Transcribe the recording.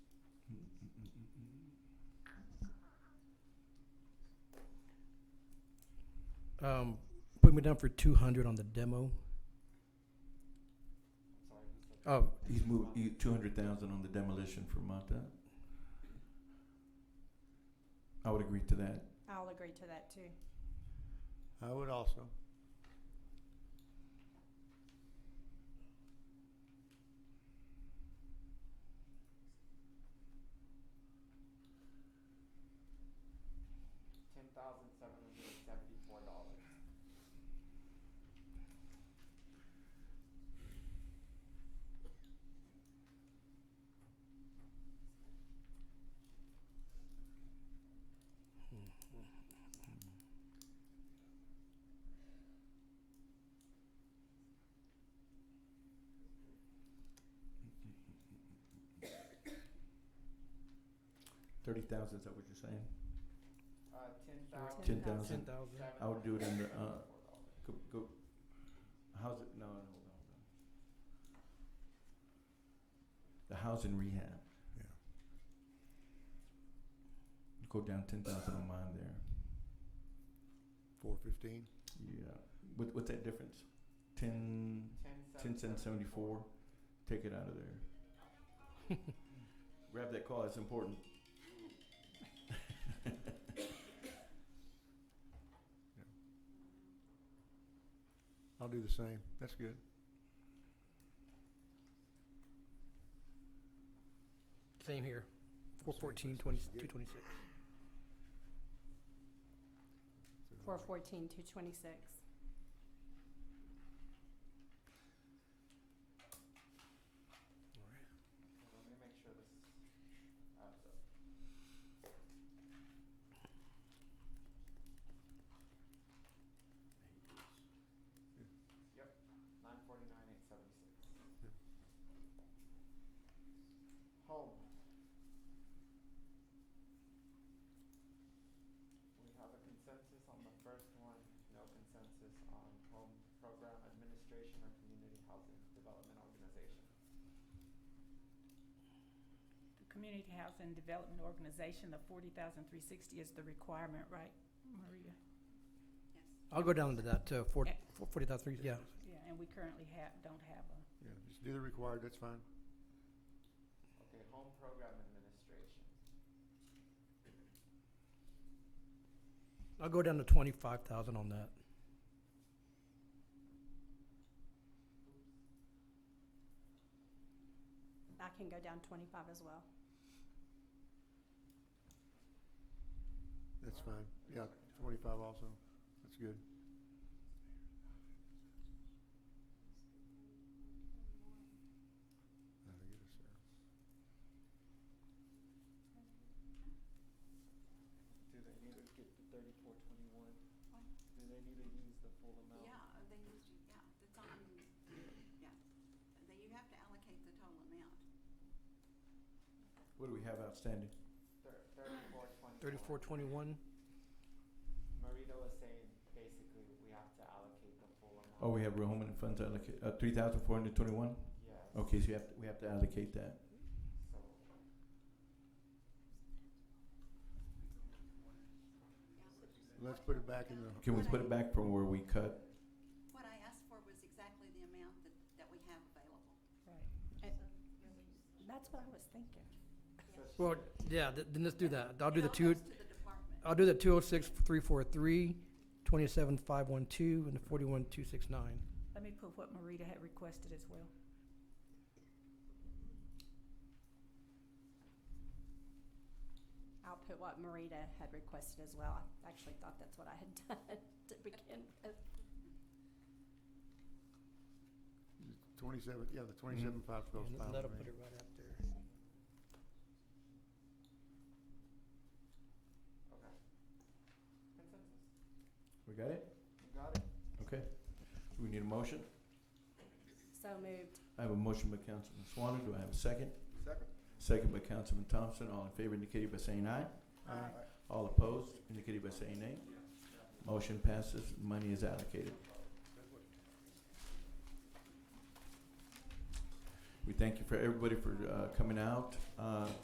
Um, put me down for two hundred on the demo. Uh, Oh, He's moved he, two hundred thousand on the demolition for Mata. I would agree to that. I'll agree to that too. I would also. ten thousand seven hundred and seventy-four dollars. Thirty thousand, is that what you're saying? Uh, ten thousand. Ten 10,000. ten thousand. I would do it under, uh, Go, go, how's it, no, no, hold on, hold on. The housing rehab. Yeah. Go down ten thousand on mine there. Four fifteen. Yeah, what, what's that difference? Ten, ten cents seventy-four, take it out of there. Grab that call, it's important. I'll do the same. That's good. Same here. Four fourteen, twenty, two twenty-six. Four fourteen, two twenty-six. Let me make sure this adds up. Yep, nine forty-nine, eight seventy-six. Yep. Home. We have a consensus on the first one, no consensus on home program administration or community housing development organization. The Community Housing Development Organization, the forty thousand three sixty is the requirement, right, Maria? I'll go down to that, uh, four, forty thousand three, yeah. Yeah, and we currently have, don't have a, Yeah, just do the required, that's fine. Okay, home program administration. I'll go down to twenty-five thousand on that. I can go down twenty-five as well. That's fine. Yeah, twenty-five also. That's good. I Do think it is, sir. they need to get the thirty-four twenty-one? Do they need to use the full amount? Yeah, uh, they used, to- yeah, it's on, yeah, They- you have to allocate the total amount. What do we have outstanding? Thir- thirty-four twenty-one. Thirty-four, twenty-one? Marita was saying, basically, we have to allocate the full amount. Oh, we have real home and funds allocate, uh, three thousand four hundred twenty-one? Yes. Okay, so you have, to- we have to allocate that. So, Let's put it back in the, Can we put it back from where we cut? What I asked for was exactly the amount that, that we have available. right. Uh, That's what I was thinking. so she- Well, yeah, th- then let's do that. I'll do It the all two, goes to the department. I'll do the two oh six, three four three, twenty-seven, five one two, and the forty-one, two six nine. Let me put what Marita had requested as well. I'll put what Marita had requested as well. I actually thought that's what I had done to begin with. twenty-seven, yeah, the twenty-seven five goes And fine. that'll with put me. it right up there. okay. Consensus, We got it? you got it? Okay. Do we need a motion? So moved. I have a motion by Councilman Swanner. Do I have a second? Second. Second by Councilman Thompson. All in favor indicated by saying aye. Uh, Aye. All opposed indicated by saying nay. Motion passes. Money is allocated. We thank you for everybody for uh, coming out. Uh,